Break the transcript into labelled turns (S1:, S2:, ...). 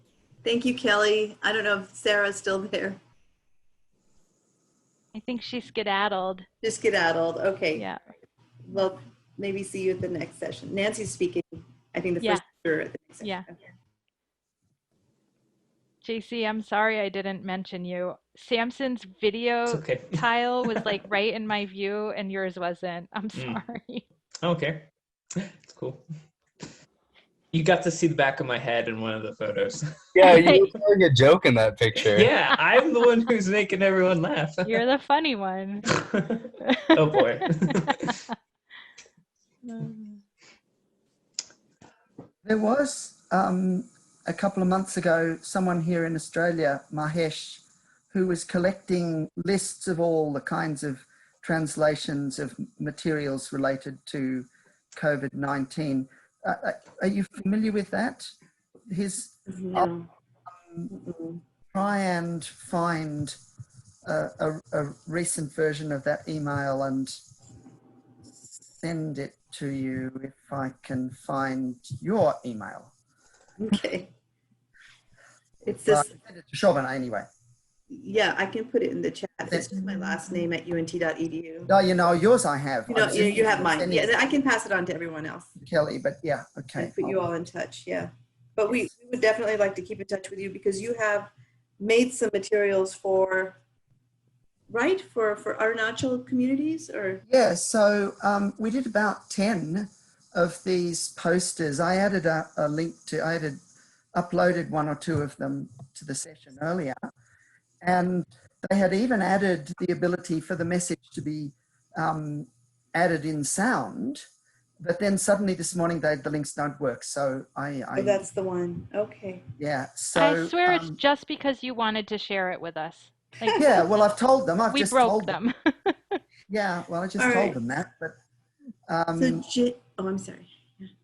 S1: Thank you, Kelly. I don't know if Sarah's still there.
S2: I think she skedaddled.
S1: Just skedaddled. Okay.
S2: Yeah.
S1: Well, maybe see you at the next session. Nancy's speaking, I think the
S2: Yeah.
S1: first. or at the next session.
S2: Yeah.
S1: Okay.
S2: JC, I'm sorry I didn't mention you. Samson's video
S3: It's okay.
S2: tile was like right in my view and yours wasn't. I'm
S3: Mm.
S2: sorry.
S3: okay. It's cool. You got to see the back of my head in one of the photos.
S4: Yeah, you were telling a joke in that picture.
S3: yeah, I'm the one who's making everyone laugh.
S2: You're the funny one.
S3: oh boy.
S2: Um,
S5: There was um, a couple of months ago someone here in Australia, Mahesh, who was collecting lists of all the kinds of translations of materials related to COVID 19. Uh, uh, are you familiar with that? His
S1: No. Um, Mm-mm.
S5: try and find a, a, a recent version of that email and send it to you if I can find your email.
S1: Okay. It's
S5: Well, I
S1: this,
S5: can send it to Chauvin anyway.
S1: yeah, I can put it in the chat. It's just my last name at unt.edu.
S5: No, you know, yours I have.
S1: You know,
S5: I'm
S1: you, you have mine.
S5: sending it
S1: Yeah, I can pass it on to everyone else
S5: to Kelly, but yeah, okay.
S1: and put you all in touch. Yeah. But we, we would definitely like to keep in touch with you because you have made some materials for, right? For, for Arunachal communities or?
S5: Yeah, so um, we did about 10 of these posters. I added a, a link to, I added, uploaded one or two of them to the session earlier. And they had even added the ability for the message to be um, added in sound. But then suddenly this morning, they, the links don't work. So I, I
S1: Oh, that's the one. Okay.
S5: yeah. So
S2: I swear it's
S5: um,
S2: just because you wanted to share it with us. Like,
S5: yeah. Well, I've told them. I've
S2: we
S5: just
S2: broke
S5: told
S2: them.
S5: Yeah, well, I just
S1: All
S5: told
S1: right.
S5: them that, but
S1: So,
S5: um,
S1: J- oh, I'm sorry.